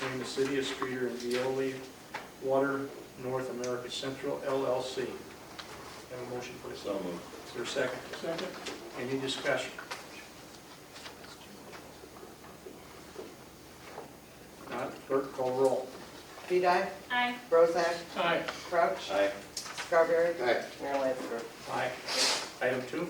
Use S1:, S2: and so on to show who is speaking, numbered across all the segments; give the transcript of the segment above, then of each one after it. S1: between the city of Streeter and Veolia Water North America Central LLC. Have a motion, please.
S2: So moved.
S1: Is there a second? Second. Any discussion? Not, clerk, call roll.
S3: Vidae,
S4: Aye.
S3: Bozak,
S1: Aye.
S3: Crouch,
S2: Aye.
S3: Scarberry,
S5: Aye.
S3: Mayor Lansinger.
S1: Aye. Item two,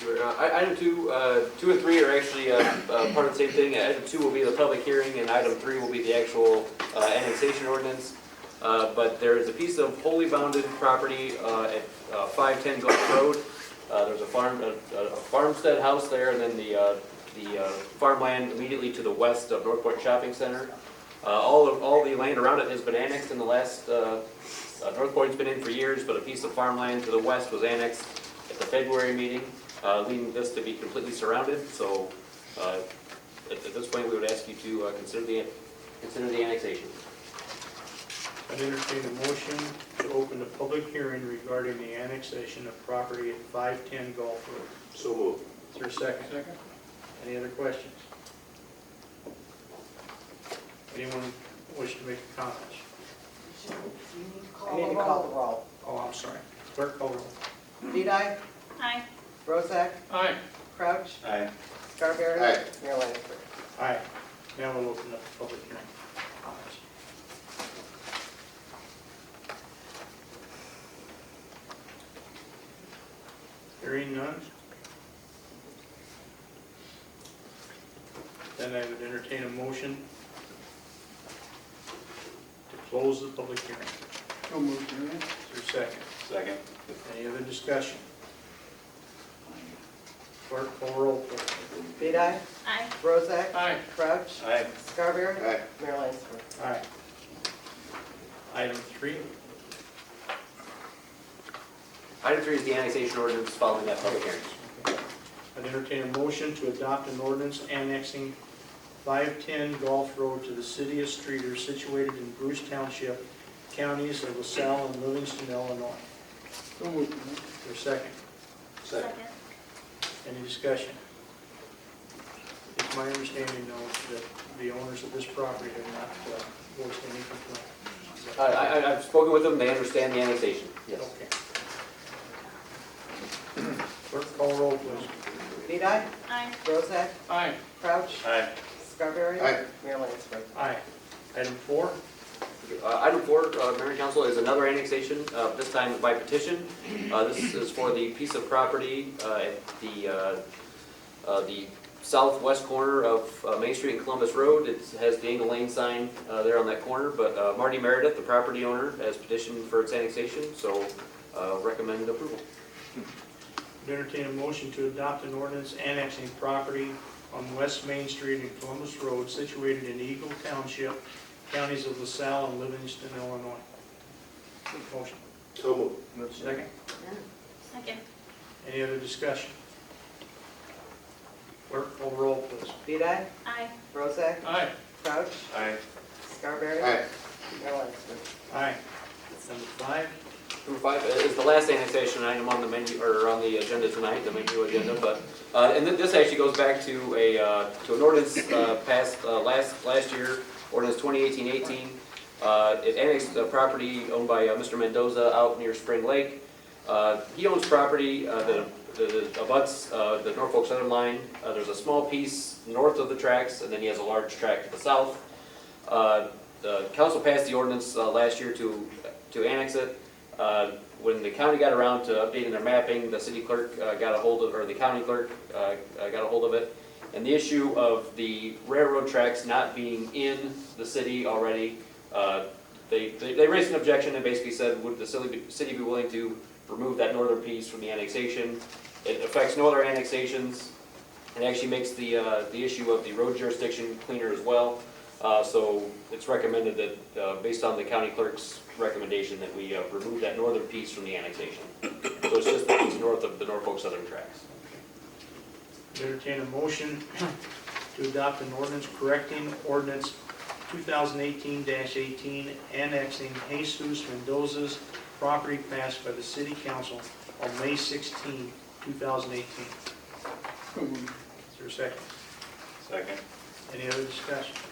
S6: Uh, I- Item two, uh, two and three are actually uh, uh, part of the same thing. Item two will be the public hearing, and item three will be the actual uh, annexation ordinance. Uh, But there is a piece of wholly bounded property uh, at uh, 510 Gulf Road. Uh, There's a farm, a- a a farmstead house there, and then the, uh, the uh, farmland immediately to the west of Northport Shopping Center. Uh, All, of- all the land around it has been annexed in the last, uh, uh, Northport's been in for years, but a piece of farmland to the west was annexed at the February meeting uh, leading this to be completely surrounded, so uh, at at this point, we would ask you to uh, consider the, consider the annexation.
S1: I entertain a motion to open the public hearing regarding the annexation of property at 510 Gulf Road.
S5: So moved.
S1: Is there a second? Second. Any other questions? Anyone wish to make comments?
S3: I need to call the roll.
S1: Oh, I'm sorry. Clerk, call roll.
S3: Vidae,
S4: Aye.
S3: Bozak,
S1: Aye.
S3: Crouch,
S2: Aye.
S3: Scarberry,
S5: Aye.
S3: Mayor Lansinger.
S1: Aye. Now we'll open up the public hearing. Comments? Hearing none? Then I would entertain a motion to close the public hearing.
S7: So moved, Mayor.
S1: Is there a second?
S2: Second.
S1: Any other discussion? Clerk, call roll, please.
S3: Vidae,
S4: Aye.
S3: Bozak,
S1: Aye.
S3: Crouch,
S2: Aye.
S3: Scarberry,
S5: Aye.
S3: Mayor Lansinger.
S1: Aye. Item three,
S6: Item three is the annexation ordinance following that public hearing.
S1: I'd entertain a motion to adopt an ordinance annexing 510 Gulf Road to the city of Streeter situated in Bruce Township, counties of LaSalle and Livingston, Illinois.
S7: So moved, Mayor.
S1: Is there a second?
S5: Second.
S1: Any discussion? It's my understanding, though, that the owners of this property have not uh, voiced any complaint. Is that-
S6: I- I- I've spoken with them, they understand the annexation.
S1: Okay. Clerk, call roll, please.
S3: Vidae,
S4: Aye.
S3: Bozak,
S1: Aye.
S3: Crouch,
S2: Aye.
S3: Scarberry,
S5: Aye.
S3: Mayor Lansinger.
S1: Aye. Item four,
S6: Uh, Item four, uh, Mayor and Council, is another annexation, uh, this time by petition. Uh, This is for the piece of property uh, at the, uh, uh, the southwest corner of uh, Main Street and Columbus Road. It has the Angle Lane sign uh, there on that corner, but uh, Marty Meredith, the property owner, has petitioned for its annexation, so uh, recommend approval.
S1: I'd entertain a motion to adopt an ordinance annexing property on West Main Street and Columbus Road situated in Eagle Township, counties of LaSalle and Livingston, Illinois. Motion,
S5: So moved.
S1: second.
S4: Second.
S1: Any other discussion? Clerk, call roll, please.
S3: Vidae,
S4: Aye.
S3: Bozak,
S1: Aye.
S3: Crouch,
S2: Aye.
S3: Scarberry,
S5: Aye.
S3: Mayor Lansinger.
S1: Aye. Number five,
S6: Number five uh, is the last annexation item on the menu, or on the agenda tonight, the menu agenda, but, uh, and thi- this actually goes back to a, uh, to an ordinance uh, passed uh, last, last year, ordinance 2018-18. Uh, It annexed the property owned by uh, Mr. Mendoza out near Spring Lake. Uh, He owns property uh, that that abuts uh, the Norfolk Southern Line. Uh, There's a small piece north of the tracks, and then he has a large tract to the south. Uh, The council passed the ordinance uh, last year to, to annex it. Uh, When the county got around to updating their mapping, the city clerk uh, got a hold of, or the county clerk uh, uh, got a hold of it. And the issue of the railroad tracks not being in the city already, uh, they, they they raised an objection and basically said, would the city, be- city be willing to remove that northern piece from the annexation? It affects no other annexations, and actually makes the, uh, the issue of the road jurisdiction cleaner as well. Uh, So it's recommended that, uh, based on the county clerk's recommendation, that we uh, remove that northern piece from the annexation. So it's just the piece north of the Norfolk Southern tracks.
S1: entertain a motion to adopt an ordinance correcting ordinance 2018-18 annexing Jesus Mendoza's property passed by the city council on May 16, 2018.
S7: So moved.
S1: Is there a second?
S2: Second.
S1: Any other discussion?